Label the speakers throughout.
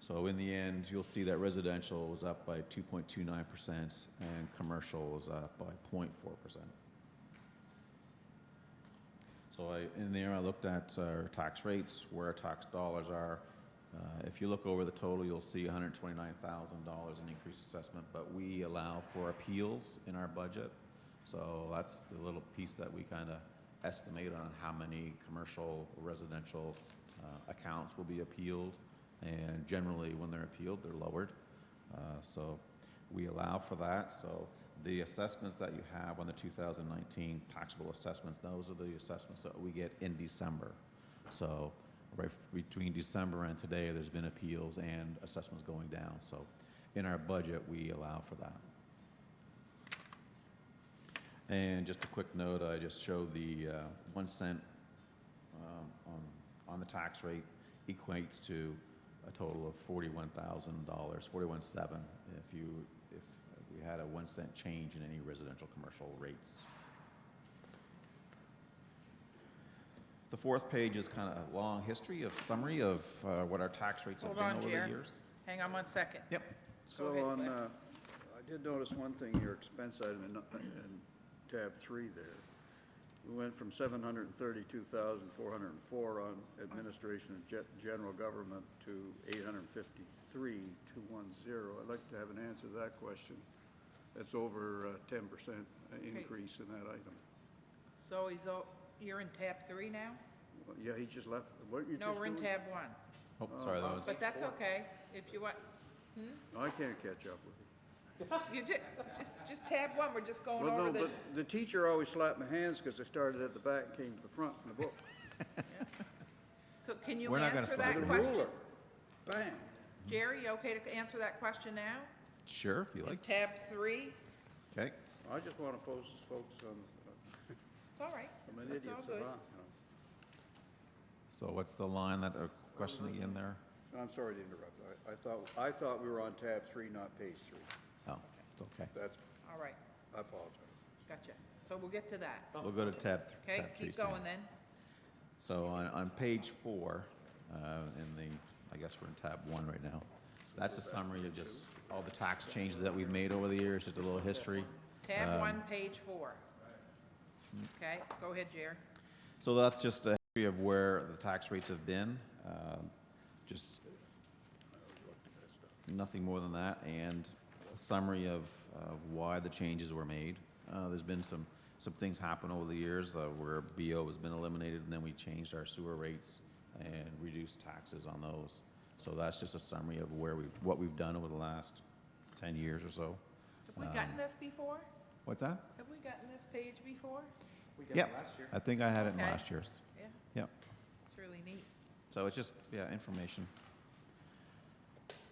Speaker 1: So in the end, you'll see that residential was up by 2.29% and commercial was up by 0.4%. So I, in there, I looked at uh, our tax rates, where our tax dollars are. Uh, If you look over the total, you'll see $129,000 in increased assessment, but we allow for appeals in our budget. So that's the little piece that we kind of estimate on how many commercial, residential uh, accounts will be appealed. And generally, when they're appealed, they're lowered. Uh, So we allow for that. So the assessments that you have on the 2019 taxable assessments, those are the assessments that we get in December. So right f- between December and today, there's been appeals and assessments going down. So in our budget, we allow for that. And just a quick note, I just showed the uh, one cent um, on, on the tax rate equates to a total of forty-one thousand dollars, forty-one seven, if you, if we had a one cent change in any residential commercial rates. The fourth page is kind of a long history of summary of uh, what our tax rates have
Speaker 2: Hold
Speaker 1: been
Speaker 2: on,
Speaker 1: over the
Speaker 2: Jer.
Speaker 1: years.
Speaker 2: Hang on one second.
Speaker 1: Yep,
Speaker 2: Go
Speaker 3: So
Speaker 2: ahead,
Speaker 3: on,
Speaker 2: Cliff.
Speaker 3: uh, I did notice one thing, your expense item in in tab three there. We went from 732,404 on administration and ge- general government to 853,210. I'd like to have an answer to that question. That's over uh, 10% increase in that item.
Speaker 2: So he's, o- you're in tab three now?
Speaker 3: Well, Yeah, he just left, weren't you just
Speaker 2: No,
Speaker 3: doing?
Speaker 2: we're in tab one.
Speaker 1: oh, sorry, that was,
Speaker 2: Uh, But that's okay, if you want,
Speaker 3: No, I can't catch up with you.
Speaker 2: you ju- just, just tab one, we're just going
Speaker 3: Well,
Speaker 2: over
Speaker 3: no,
Speaker 2: the,
Speaker 3: but the teacher always slapped my hands because I started at the back and came to the front in the book.
Speaker 2: so can you
Speaker 1: We're not gonna
Speaker 2: answer
Speaker 1: stop
Speaker 2: that
Speaker 3: With a
Speaker 2: question?
Speaker 3: ruler. Bam.
Speaker 2: Jerry, you okay to answer that question now?
Speaker 1: sure, if you
Speaker 2: In
Speaker 1: like.
Speaker 2: tab three?
Speaker 1: Okay,
Speaker 3: I just want to focus, focus on,
Speaker 2: It's all right,
Speaker 3: I'm
Speaker 2: It's-
Speaker 3: an
Speaker 2: it's
Speaker 3: idiot
Speaker 2: all good.
Speaker 3: savant, you
Speaker 1: so what's the line that, uh, question again there?
Speaker 3: know. I'm sorry to interrupt. I, I thought, I thought we were on tab three, not page three.
Speaker 1: Oh, it's okay.
Speaker 3: That's,
Speaker 2: All right,
Speaker 3: I apologize.
Speaker 2: gotcha. So we'll get to that,
Speaker 1: We'll go to tab, th-
Speaker 2: okay?
Speaker 1: tab three.
Speaker 2: Keep
Speaker 1: soon.
Speaker 2: going then.
Speaker 1: So on, on page four, uh, in the, I guess we're in tab one right now. That's a summary of just all the tax changes that we've made over the years, just a little history. Um,
Speaker 2: Tab one, page four. Okay, go ahead, Jerry.
Speaker 1: So that's just a history of where the tax rates have been, um, just nothing more than that, and a summary of uh, why the changes were made. Uh, There's been some, some things happen over the years uh, where BO has been eliminated, and then we changed our sewer rates and reduced taxes on those. So that's just a summary of where we, what we've done over the last 10 years or so.
Speaker 2: Have
Speaker 1: um,
Speaker 2: we gotten this before?
Speaker 1: What's that?
Speaker 2: Have we gotten this page before?
Speaker 4: We got it
Speaker 1: Yep,
Speaker 4: last year.
Speaker 1: I think I had it in
Speaker 2: Okay.
Speaker 1: last year's.
Speaker 2: Yeah,
Speaker 1: Yep.
Speaker 2: it's really neat.
Speaker 1: So it's just, yeah, information.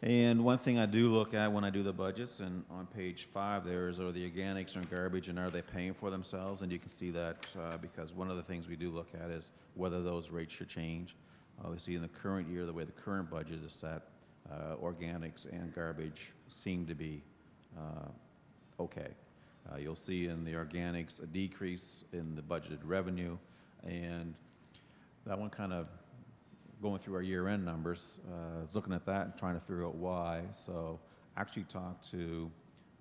Speaker 1: And one thing I do look at when I do the budgets, and on page five there is, are the organics and garbage, and are they paying for themselves? And you can see that, uh, because one of the things we do look at is whether those rates should change. Obviously, in the current year, the way the current budget is set, uh, organics and garbage seem to be, uh, okay. Uh, you'll see in the organics a decrease in the budgeted revenue, and that one kind of going through our year-end numbers, uh, was looking at that and trying to figure out why. So I actually talked to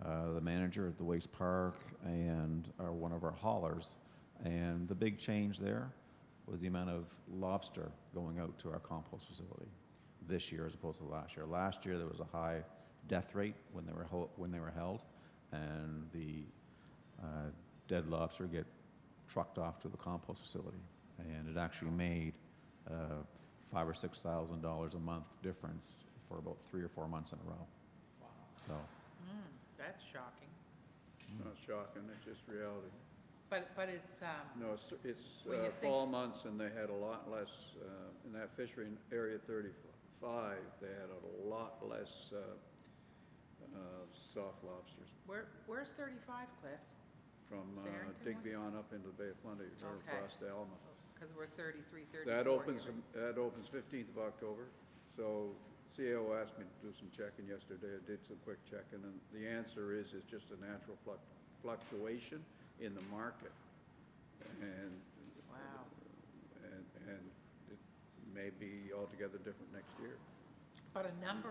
Speaker 1: uh, the manager at the waste park and uh, one of our haulers, and the big change there was the amount of lobster going out to our compost facility this year as opposed to last year. Last year there was a high death rate when they were hel- when they were held, and the uh, dead lobster get trucked off to the compost facility, and it actually made uh, five or six thousand dollars a month difference for about three or four months in a row. So
Speaker 2: Mm. That's shocking.
Speaker 3: It's not shocking, it's just reality.
Speaker 2: But, but it's, um,
Speaker 3: No, it's, it's
Speaker 2: Well, you
Speaker 3: uh,
Speaker 2: think-
Speaker 3: fall months and they had a lot less, uh, in that fishery in area thirty-five, they had a lot less, uh, uh, soft lobsters
Speaker 2: where, where's thirty-five, Cliff?
Speaker 3: from uh,
Speaker 2: Barrington one?
Speaker 3: Digby on up into the Bay of Plenty, or
Speaker 2: Okay.
Speaker 3: across to Alma.
Speaker 2: Because we're thirty-three, thirty-four.
Speaker 3: That opens,
Speaker 2: here.
Speaker 3: that opens fifteenth of October, so CAO asked me to do some checking yesterday, I did some quick checking, and the answer is, it's just a natural fluc- fluctuation in the market. And,
Speaker 2: Wow,
Speaker 3: and, and it may be altogether different next year.
Speaker 2: but a number